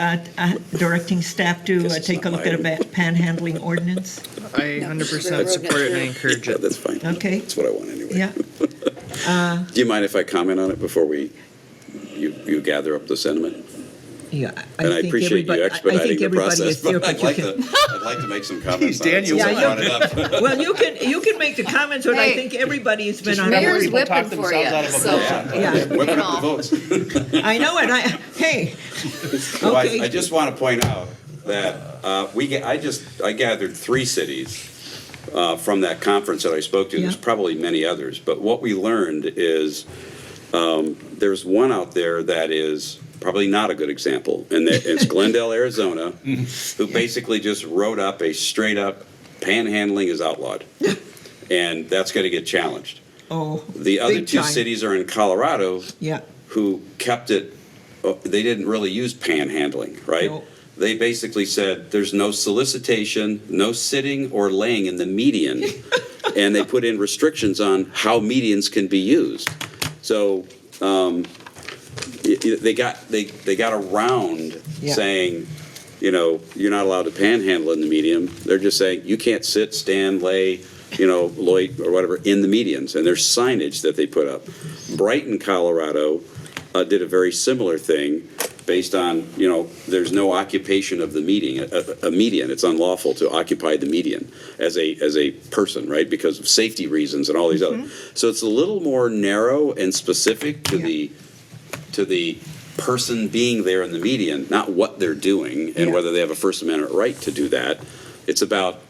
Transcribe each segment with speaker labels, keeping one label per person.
Speaker 1: uh, uh, directing staff to
Speaker 2: Guess
Speaker 1: uh,
Speaker 2: it's
Speaker 1: take a
Speaker 2: not
Speaker 1: look at a
Speaker 2: mine.
Speaker 1: ba- panhandling ordinance?
Speaker 3: I hundred percent support it and I encourage
Speaker 2: Yeah,
Speaker 3: it.
Speaker 2: that's fine.
Speaker 1: Okay.
Speaker 2: That's what I want anyway.
Speaker 1: Yeah.
Speaker 2: Do you mind if I comment on it before we, you, you gather up the sentiment?
Speaker 1: Yeah,
Speaker 2: And I
Speaker 1: think
Speaker 2: appreciate
Speaker 1: everybody-
Speaker 2: you
Speaker 1: I- I
Speaker 2: expediting
Speaker 1: think
Speaker 2: the
Speaker 1: everybody
Speaker 2: process,
Speaker 1: is here,
Speaker 2: but
Speaker 1: but
Speaker 2: I'd
Speaker 1: you
Speaker 2: like
Speaker 1: can.
Speaker 2: to, I'd like to make some comments on it.
Speaker 3: Daniel,
Speaker 2: since I
Speaker 1: Yeah,
Speaker 2: brought
Speaker 1: you-
Speaker 2: it up.
Speaker 1: Well, you can, you can make the comments, but I
Speaker 4: Hey,
Speaker 1: think everybody's been on
Speaker 4: Mayor's
Speaker 1: board.
Speaker 4: whipping for you, so.
Speaker 1: Yeah.
Speaker 2: Whipping
Speaker 4: Come
Speaker 2: up the
Speaker 4: on.
Speaker 2: votes.
Speaker 1: I know, and I, hey,
Speaker 2: Well, I,
Speaker 1: Okay.
Speaker 2: I just want to point out that uh, we, ga- I just, I gathered three cities uh, from that conference that I spoke to. There's
Speaker 1: Yeah.
Speaker 2: probably many others, but what we learned is um, there's one out there that is probably not a good example, and that it's Glendale, Arizona, who basically just wrote up a straight up panhandling is outlawed, and that's going to get challenged.
Speaker 1: oh.
Speaker 2: The other
Speaker 1: big
Speaker 2: two
Speaker 1: time.
Speaker 2: cities are in Colorado,
Speaker 1: Yeah,
Speaker 2: who kept it, uh, they didn't really use panhandling, right?
Speaker 1: No.
Speaker 2: They basically said, there's no solicitation, no sitting or laying in the median. And they put in restrictions on how medians can be used. So, um, y- y- they got, they, they got around
Speaker 1: Yeah.
Speaker 2: saying, you know, you're not allowed to panhandle in the median. They're just saying, you can't sit, stand, lay, you know, loit or whatever in the medians. And there's signage that they put up. Brighton, Colorado, uh, did a very similar thing based on, you know, there's no occupation of the meeting, a, a median. It's unlawful to occupy the median as a, as a person, right? Because of safety reasons and all these other. So it's a little more narrow and specific to
Speaker 1: Yeah.
Speaker 2: the, to the person being there in the median, not what they're doing and
Speaker 1: Yeah.
Speaker 2: whether they have a First Amendment right to do that. It's about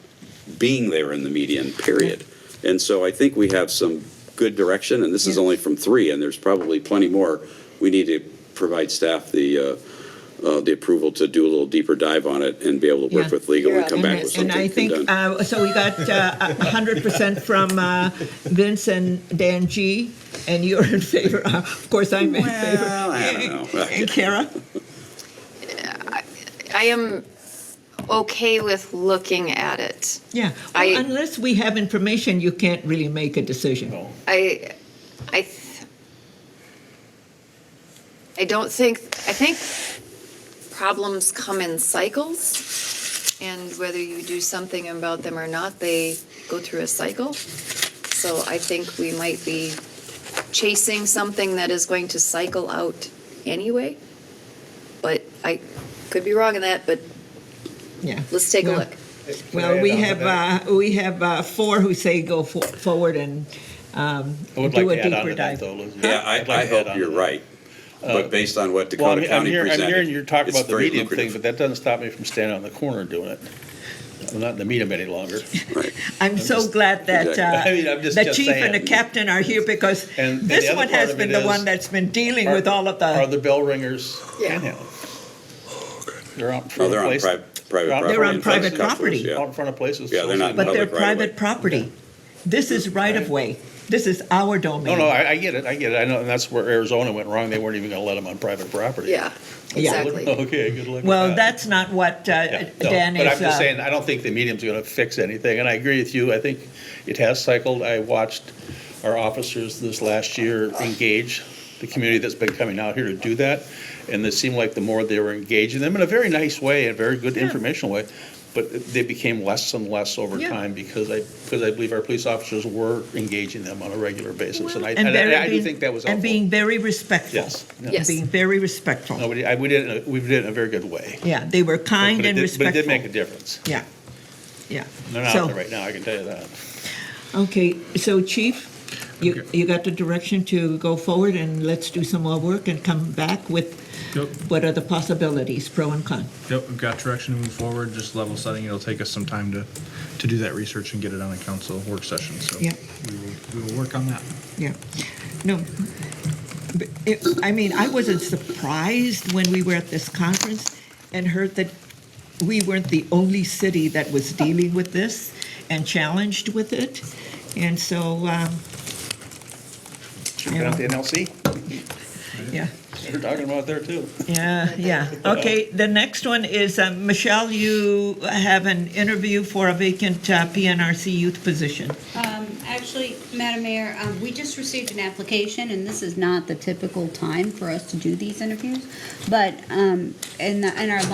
Speaker 2: being there in the median, period. And so I think we have some good direction, and this is
Speaker 1: Yeah.
Speaker 2: only from three, and there's probably plenty more. We need to provide staff the, uh, uh, the approval to do a little deeper dive on it and be able to
Speaker 1: Yeah.
Speaker 2: work with legal and
Speaker 4: Yeah,
Speaker 2: come back
Speaker 4: and-
Speaker 2: with something
Speaker 1: and I
Speaker 2: condemned.
Speaker 1: think, uh, so we got uh, a hundred percent from uh, Vince and Dan G, and you're in favor, Uh, of course, I'm in favor.
Speaker 2: Well, I don't know.
Speaker 1: And Kara?
Speaker 4: I am okay with looking at it.
Speaker 1: Yeah,
Speaker 4: I-
Speaker 1: well, unless we have information, you can't really make a decision.
Speaker 4: I, I, th- I don't think, I think problems come in cycles, and whether you do something about them or not, they go through a cycle. So I think we might be chasing something that is going to cycle out anyway. But I could be wrong in that, but
Speaker 1: Yeah.
Speaker 4: let's take a
Speaker 1: Well,
Speaker 4: look.
Speaker 1: Well, we
Speaker 5: Yeah,
Speaker 1: have, uh, we have uh, four who say go fo- forward and um,
Speaker 5: I would like
Speaker 1: do a
Speaker 5: to add on
Speaker 1: deeper
Speaker 5: to that,
Speaker 1: dive.
Speaker 5: though, Elizabeth.
Speaker 2: Yeah, I,
Speaker 5: I'd like
Speaker 2: I
Speaker 5: to add
Speaker 2: hope
Speaker 5: on to
Speaker 2: you're
Speaker 5: that.
Speaker 2: right, but based on what
Speaker 5: Well, I'm,
Speaker 2: Dakota
Speaker 5: I'm
Speaker 2: County
Speaker 5: hearing, I'm
Speaker 2: presented.
Speaker 5: hearing you talk
Speaker 2: it's
Speaker 5: about the
Speaker 2: very
Speaker 5: medium thing,
Speaker 2: lucrative.
Speaker 5: but that doesn't stop me from standing on the corner and doing it. I'm not in the medium any longer.
Speaker 1: I'm so glad that
Speaker 2: Exactly.
Speaker 1: uh,
Speaker 5: I mean, I'm just-
Speaker 1: the
Speaker 5: just
Speaker 1: chief and the
Speaker 5: saying.
Speaker 1: captain are here because
Speaker 5: And- and the
Speaker 1: this
Speaker 5: other
Speaker 1: one
Speaker 5: part
Speaker 1: has
Speaker 5: of
Speaker 1: been
Speaker 5: it
Speaker 1: the
Speaker 5: is-
Speaker 1: one that's been dealing
Speaker 5: Are-
Speaker 1: with all of
Speaker 5: Are
Speaker 1: the,
Speaker 5: the bell ringers
Speaker 4: Yeah.
Speaker 5: panhandling? They're out
Speaker 2: No,
Speaker 5: in front
Speaker 2: Oh, they're
Speaker 5: of
Speaker 2: on
Speaker 5: places.
Speaker 2: private, private
Speaker 5: They're on
Speaker 2: property. in front of
Speaker 1: private property.
Speaker 2: customers,
Speaker 5: Out
Speaker 2: yeah.
Speaker 5: in front of places.
Speaker 2: Yeah, they're not
Speaker 1: but they're
Speaker 2: public
Speaker 1: private
Speaker 2: right-of-way.
Speaker 1: property. This is right of way. This is our
Speaker 5: No, no,
Speaker 1: domain.
Speaker 5: I, I get it, I get it. I know, and that's where Arizona went wrong. They weren't even gonna let them on private property.
Speaker 4: Yeah,
Speaker 1: Yeah.
Speaker 4: exactly.
Speaker 5: Okay, good luck with that.
Speaker 1: Well, that's not what uh,
Speaker 5: Yeah, no,
Speaker 1: Dan
Speaker 5: But I'm
Speaker 1: is,
Speaker 5: just
Speaker 1: uh,
Speaker 5: saying, I don't think the medium's going to fix anything, and I agree with you. I think it has cycled. I watched our officers this last year engage the community that's been coming out here to do that, and it seemed like the more they were engaging them in a very nice way, a very good informational way, but they became less and less over
Speaker 1: Yeah.
Speaker 5: time because I, because I believe our police officers were engaging them on a regular basis, and I,
Speaker 1: and
Speaker 5: and
Speaker 1: very
Speaker 5: I I do
Speaker 1: being-
Speaker 5: think that was
Speaker 1: And
Speaker 5: helpful.
Speaker 1: being very respectful.
Speaker 5: Yes. yeah.
Speaker 4: Yes.
Speaker 1: Being very respectful.
Speaker 5: Nobody, I, we did, it in a- we did it in a very good way.
Speaker 1: Yeah, they were kind
Speaker 5: But it
Speaker 1: and
Speaker 5: did- But it
Speaker 1: respectful.
Speaker 5: did make a difference.
Speaker 1: Yeah, yeah.
Speaker 5: They're not
Speaker 1: So-
Speaker 5: out there right now, I can tell you that.
Speaker 1: Okay, so Chief, you, you got the direction to go forward and let's do some more work and come back with
Speaker 6: Yep,
Speaker 1: what are the possibilities, pro and con.
Speaker 6: yep, we've got direction to move forward, just level setting, it'll take us some time to, to do that research and get it on a council work session, so.
Speaker 1: Yeah.
Speaker 6: We will, we will work on that.
Speaker 1: Yeah, no. But it- I mean, I wasn't surprised when we were at this conference and heard that we weren't the only city that was dealing with this and challenged with it. And so, um,
Speaker 5: Been out the NLC?
Speaker 1: yeah,
Speaker 5: they're talking about there too.
Speaker 1: Yeah, yeah. Okay, the next one is, uh, Michelle, you have an interview for a vacant uh, PNRC youth position.
Speaker 7: Um, Actually, Madam Mayor, um, we just received an application, and this is not the typical time for us to do these interviews, but um, in the- in our